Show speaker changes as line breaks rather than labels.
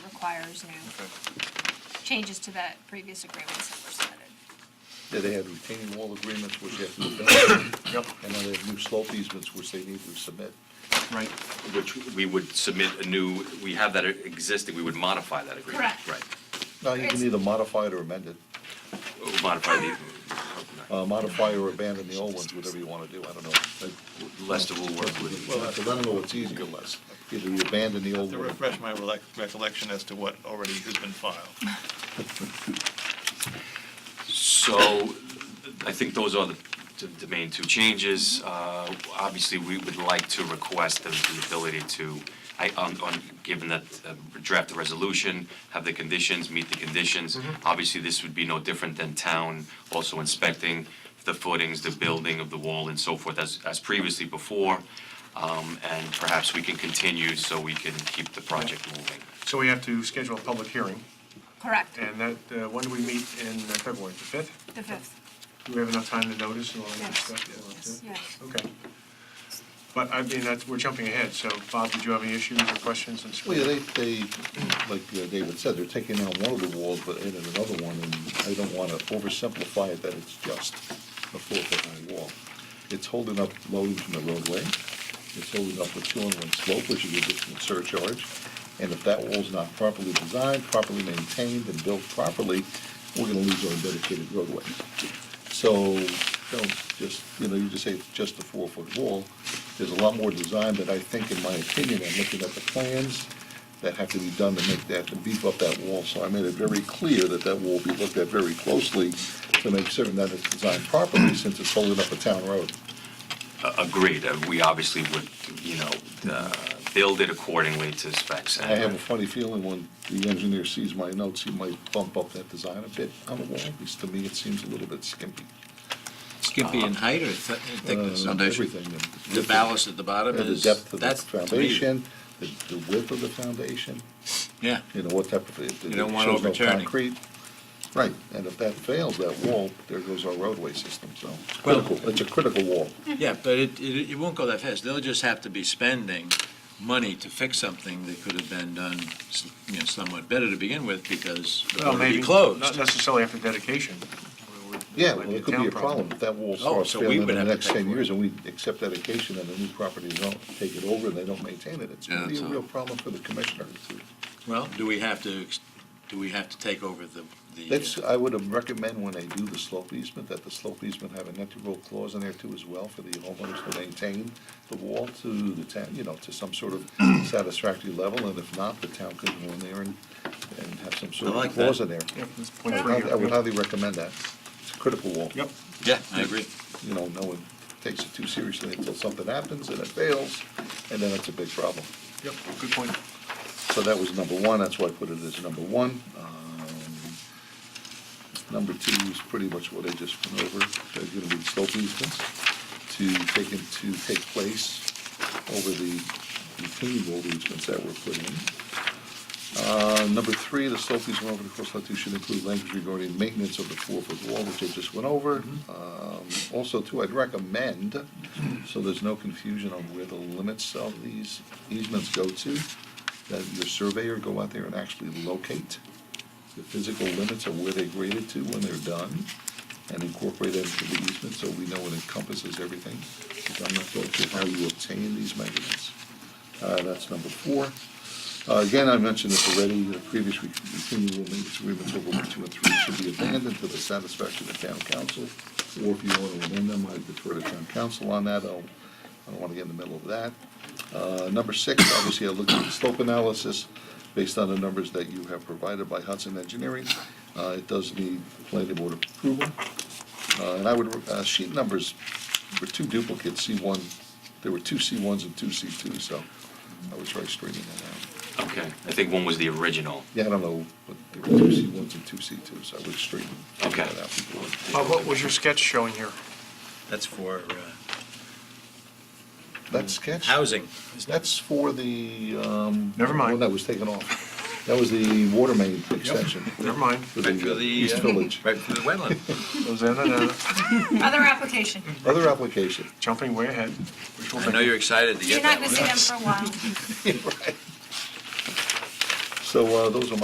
requires new changes to that previous agreements that were submitted.
Yeah, they had retaining wall agreements which they have to defend,
Yep,
and then they have new slope easements which they need to submit.
right.
Which we would submit a new, we have that existing, we would modify that agreement.
Correct.
Right.
Now, you can either modify it or amend it,
Modify the,
uh, modify or abandon the old ones, whatever you want to do, I don't know.
Lester will work with
Well, I don't know what's easier, Les, either you abandon the old
To
one.
refresh my relec- recollection as to what already has been filed.
So I think those are the, the- the main two changes. Uh, Obviously, we would like to request the the ability to, I, on, on, given that uh, draft the resolution, have the conditions, meet the conditions. Obviously, this would be no different than town also inspecting the footings, the building of the wall and so forth as, as previously before. Um, And perhaps we can continue so we can keep the project moving.
So we have to schedule a public hearing,
Correct,
and that, uh, when do we meet in uh, February, the 5th?
the fifth,
Do we have enough time to notice and all that
yes,
stuff?
yes,
Yeah.
yes.
Okay. But I mean, that's, we're jumping ahead, so Bob, did you have any issues or questions in
Well, yeah,
school?
they, they, like uh, David said, they're taking out one of the walls, but adding another one, and I don't want to oversimplify it that it's just a four-foot-high wall. It's holding up loading from the roadway, it's holding up the two-on-one slope, which is a different surcharge, and if that wall's not properly designed, properly maintained, and built properly, we're gonna lose our dedicated roadway. So, don't just, you know, you just say it's just a four-foot wall. There's a lot more design that I think, in my opinion, I'm looking at the plans that have to be done to make that, to beef up that wall. So I made it very clear that that wall be looked at very closely to make certain that it's designed properly since it's holding up a town road.
A- Agreed, Uh, we obviously would, you know, uh, build it accordingly to specs.
I have a funny feeling when the engineer sees my notes, he might bump up that design a bit on the wall. At least to me, it seems a little bit skimpy.
Skimpy in height or thi- thickness?
Uh,
Foundation?
everything, and-
The ballast at the bottom
And the
is,
depth of the
that's, to me,
foundation, the the width of the foundation.
yeah.
you know, what type of, it it
You don't want
shows no
overturning.
concrete. Right, and if that fails, that wall, there goes our roadway system, so,
Well-
critical, it's a critical wall.
Yeah, but it, it, it won't go that fast. They'll just have to be spending money to fix something that could have been done, s- you know, somewhat better to begin with because the
Well,
road would
maybe,
be
not
closed.
necessarily after dedication.
Yeah, well, it could be
town
a problem if that wall
Oh,
starts
so we
failing in
would
the
have to
next
pay
ten
for
years, and we accept dedication, and the new property don't take it over, and they don't maintain it, it's gonna
Yeah,
be a
so-
real problem for the commissioner.
Well, do we have to, ex- do we have to take over the, the?
That's,
uh,
I would recommend when they do the slope easement, that the slope easement have an integral clause in there too as well for the homeowners to maintain the wall to the town, you know, to some sort of satisfactory level, and if not, the town could go in there and, and have some sort
I
of
like
clause
that.
in there.
Yeah, that's
I
point
would
three
highly- I would
here.
highly recommend that. It's a critical wall.
Yep,
Yeah, I agree.
You know, no one takes it too seriously until something happens and it fails, and then it's a big problem.
yep, good point.
So that was number one, that's why I put it as number one. Um, Number two is pretty much what I just went over, there's gonna be slope easements to take, in- to take place over the retaining wall easements that were put in. Uh, Number three, the slope easement over the course lot two should include language regarding maintenance of the four-foot wall, which I just went over. Um, Also, too, I'd recommend, so there's no confusion on where the limits of these easements go to, that your surveyor go out there and actually locate the physical limits of where they graded to when they're done, and incorporate that into the easement, so we know it encompasses everything. 'Cause I'm not going to how you obtain these measurements. Uh, that's number four. Uh, Again, I mentioned this already, the previous re- retaining wall maintenance agreements over one, two, and three should be abandoned to the satisfaction of town council, or if you want to amend them, I defer to town council on that, I don't, I don't want to get in the middle of that. Uh, Number six, obviously, I looked at the slope analysis based on the numbers that you have provided by Hudson Engineering. Uh, It does need planning board approval. Uh, And I would, uh, sheet numbers were two duplicates, C1, there were two C1s and two C2s, so I would try straightening that out.
Okay, I think one was the original.
Yeah, I don't know, but there were two C1s and two C2s, so I would straighten that
Okay.
out before.
Bob, what was your sketch showing here?
That's for uh,
That sketch,
housing.
that's for the, um.
Never mind.
One that was taken off. That was the water main extension.
Never mind.
For the East Village.
uh, Right through the wetland.
Those in and out,
Other application,
Other application.
jumping way ahead. which will make-
excited to
you're not gonna see them for a while.
So uh, those are my